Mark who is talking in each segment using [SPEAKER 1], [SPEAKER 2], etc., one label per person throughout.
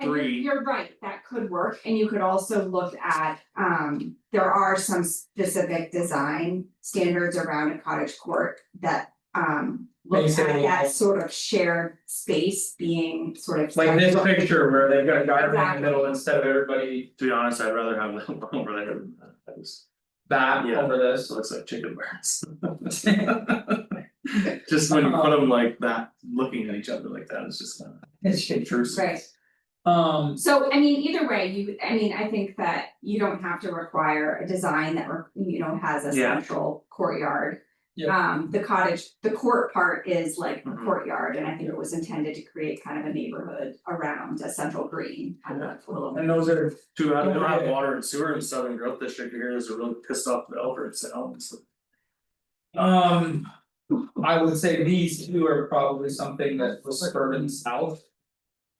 [SPEAKER 1] And you're-
[SPEAKER 2] Three.
[SPEAKER 1] You're right, that could work, and you could also look at, um, there are some specific design standards around a cottage court that, um. Look at
[SPEAKER 3] Basically,
[SPEAKER 1] that sort of shared space being sort of.
[SPEAKER 3] Like this
[SPEAKER 1] central.
[SPEAKER 3] picture where they've got a guy in the middle
[SPEAKER 1] Exactly.
[SPEAKER 3] instead of everybody
[SPEAKER 2] To be honest, I'd rather have them over there, than that. that was,
[SPEAKER 3] back
[SPEAKER 2] Yeah.
[SPEAKER 3] over this.
[SPEAKER 2] this looks like chicken breasts. Just when you put them like that, looking at each other like that, it's just kind
[SPEAKER 3] It's
[SPEAKER 2] of intrusive.
[SPEAKER 1] Right.
[SPEAKER 3] Um,
[SPEAKER 1] So, I mean, either way, you, I mean, I think that you don't have to require a design that, re- you know, has a
[SPEAKER 2] Yeah.
[SPEAKER 1] central courtyard.
[SPEAKER 3] Yeah.
[SPEAKER 1] Um, the cottage, the court part is like a
[SPEAKER 2] Mhm.
[SPEAKER 1] courtyard, and I think it was intended to create kind of a neighborhood around a central green, kind of like a little.
[SPEAKER 3] and those are,
[SPEAKER 2] Too bad, they don't have
[SPEAKER 3] Okay.
[SPEAKER 2] water and sewer in Southern Growth District here, there's a really pissed off developers, so. it's-
[SPEAKER 3] um. I would say these two are probably something that was suburban south.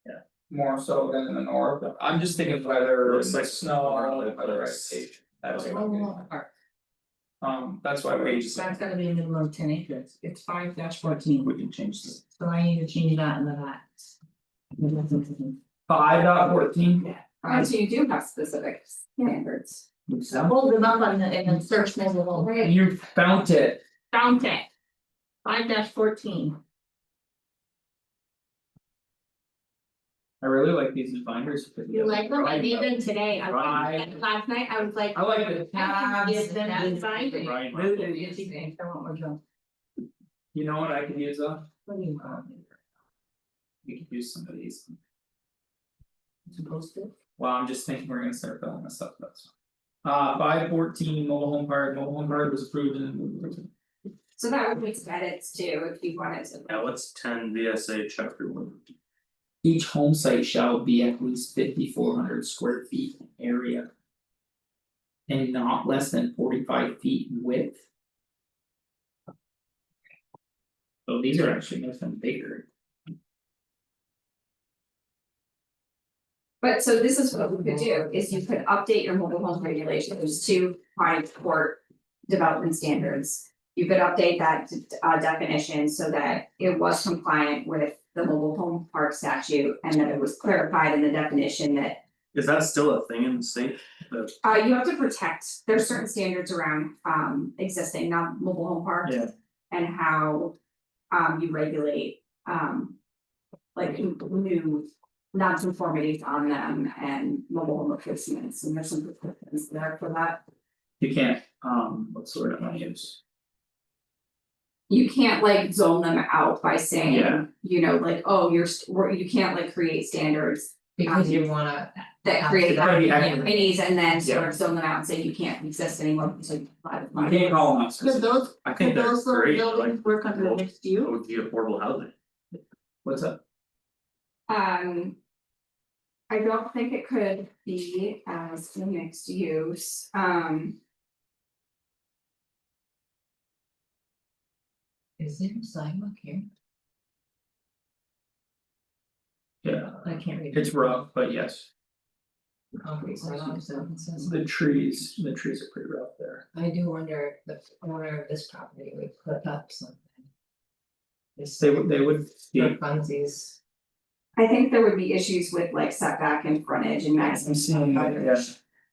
[SPEAKER 2] Yeah.
[SPEAKER 3] More so than in the north, I'm just thinking weather and
[SPEAKER 2] Looks like-
[SPEAKER 3] snow or weather expectation,
[SPEAKER 2] Oh,
[SPEAKER 3] that's
[SPEAKER 4] Oh,
[SPEAKER 3] what I'm getting at. Um, that's why we just.
[SPEAKER 4] So that's gotta be a minimum of ten acres, it's five dash fourteen,
[SPEAKER 2] We can change this.
[SPEAKER 4] so I need to change that and that.
[SPEAKER 3] Five dot fourteen,
[SPEAKER 1] Uh, so you do have specific standards.
[SPEAKER 4] Hold them up on the, and then search them alone.
[SPEAKER 3] you found it,
[SPEAKER 4] Found it. Five dash fourteen,
[SPEAKER 3] I really like these new binders.
[SPEAKER 4] you like them, I made them today, I
[SPEAKER 3] Right.
[SPEAKER 4] and last night, I was like.
[SPEAKER 3] I like the
[SPEAKER 4] I can
[SPEAKER 3] tabs.
[SPEAKER 4] give them that binding.
[SPEAKER 2] Right.
[SPEAKER 4] Interesting, I want more junk.
[SPEAKER 3] You know what I could use though?
[SPEAKER 4] What do you want?
[SPEAKER 3] We could use some of these,
[SPEAKER 4] Supposed to?
[SPEAKER 3] well, I'm just thinking we're gonna start filling this up, that's. fine. Uh, five fourteen mobile home park, mobile home park was approved in.
[SPEAKER 1] So that would make some edits too, if you wanted to.
[SPEAKER 2] Yeah, what's ten VSA chapter one?
[SPEAKER 3] Each home site shall be at least fifty four hundred square feet in area. And not less than forty five feet in width. So these are actually nothing bigger.
[SPEAKER 1] But so this is what we could do, is you could update your mobile home regulations to cottage court development standards. You could update that uh, definition so that it was compliant with the mobile home park statute and that it was clarified in the definition that.
[SPEAKER 2] Is that still a thing in the state? The-
[SPEAKER 1] Uh, you have to protect, there's certain standards around um existing, not mobile home parks.
[SPEAKER 2] Yeah.
[SPEAKER 1] And how um you regulate um like n- new non-conformities on them and mobile home replacements, and there's some protections there for that.
[SPEAKER 3] You can't, um, what sort of I use?
[SPEAKER 1] You can't like zone them out by
[SPEAKER 3] Yeah.
[SPEAKER 1] saying, you know, like, oh, you're, st- or you can't like create standards
[SPEAKER 4] Because you wanna.
[SPEAKER 1] that
[SPEAKER 4] have
[SPEAKER 1] create
[SPEAKER 4] to-
[SPEAKER 3] Gotta be
[SPEAKER 4] Yeah.
[SPEAKER 3] accurate.
[SPEAKER 1] companies and then sort
[SPEAKER 3] Yeah.
[SPEAKER 1] of zone them out and say you can't exist anymore, because you comply with
[SPEAKER 3] You
[SPEAKER 1] my-
[SPEAKER 3] can't call them.
[SPEAKER 4] Could those,
[SPEAKER 2] I think
[SPEAKER 4] could
[SPEAKER 2] they're
[SPEAKER 4] those little
[SPEAKER 2] great, like,
[SPEAKER 4] buildings work under
[SPEAKER 2] well,
[SPEAKER 4] mixed
[SPEAKER 2] it
[SPEAKER 4] use?
[SPEAKER 2] would be affordable housing.
[SPEAKER 3] What's up?
[SPEAKER 1] Um. I don't think it could be as the mixed use, um,
[SPEAKER 4] Is there a sidewalk here?
[SPEAKER 3] Yeah,
[SPEAKER 4] I can't read.
[SPEAKER 3] it's rough, but yes,
[SPEAKER 4] Concrete sidewalk, so it says.
[SPEAKER 3] the trees, the trees are pretty rough there.
[SPEAKER 4] I do wonder if the owner of this property would put up something. This
[SPEAKER 3] They would, they would be.
[SPEAKER 4] funsies.
[SPEAKER 1] I think there would be issues with like setback and frontage and maximum. coverage.
[SPEAKER 3] Yeah.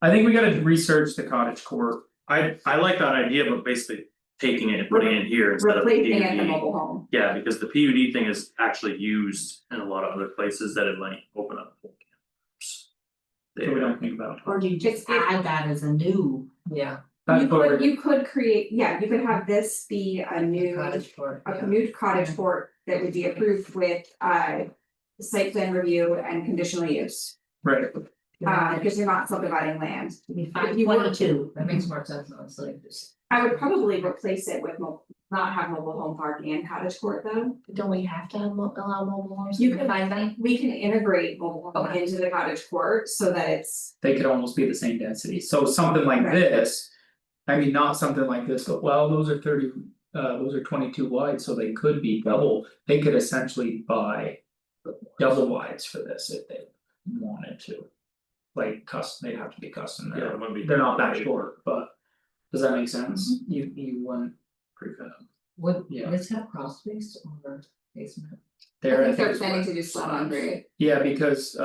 [SPEAKER 3] I think we gotta research the cottage court.
[SPEAKER 2] I I like that idea, but basically taking it and putting it here instead of the PUD.
[SPEAKER 1] Replacing it the mobile home,
[SPEAKER 2] Yeah, because the PUD thing is actually used in a lot of other places that it might open up. whole camps. They
[SPEAKER 3] that we don't think about.
[SPEAKER 4] Or do you
[SPEAKER 1] just add
[SPEAKER 4] that as a new? Yeah.
[SPEAKER 3] That's
[SPEAKER 1] you
[SPEAKER 3] what
[SPEAKER 1] could,
[SPEAKER 3] we're-
[SPEAKER 1] you could create, yeah, you could have this be a new,
[SPEAKER 4] Cottage court,
[SPEAKER 1] a
[SPEAKER 4] yeah.
[SPEAKER 1] new cottage court that would be approved with, uh. Site plan review and conditional use,
[SPEAKER 3] right,
[SPEAKER 1] uh, because you're not subdividing land,
[SPEAKER 4] Five
[SPEAKER 1] if you want-
[SPEAKER 4] twenty-two, that makes more sense, honestly, just.
[SPEAKER 1] I would probably replace it with mo- not have mobile home park and cottage court though.
[SPEAKER 4] Don't we have to have mo- allow mobile homes?
[SPEAKER 1] You can-
[SPEAKER 4] find them.
[SPEAKER 1] We can integrate mobile home into the cottage court so that it's,
[SPEAKER 3] they could almost be the same density, so something like
[SPEAKER 1] Right.
[SPEAKER 3] this. I mean, not something like this, but well, those are thirty, uh, those are twenty-two wide, so they could be double, they could essentially buy. Double wides for this if they wanted to. Like custom, they'd have to be custom,
[SPEAKER 2] Yeah,
[SPEAKER 3] they're
[SPEAKER 2] it wouldn't be.
[SPEAKER 3] they're not that short, but. Does that make sense?
[SPEAKER 1] Mm-hmm.
[SPEAKER 3] You you wouldn't.
[SPEAKER 2] Pretty good.
[SPEAKER 4] Would,
[SPEAKER 3] Yeah.
[SPEAKER 4] this have crawl space or basement?
[SPEAKER 1] I
[SPEAKER 3] There, I
[SPEAKER 1] think
[SPEAKER 3] think
[SPEAKER 1] they're
[SPEAKER 3] it's
[SPEAKER 1] planning
[SPEAKER 3] what-
[SPEAKER 1] to do slab on grade.
[SPEAKER 3] Yeah, because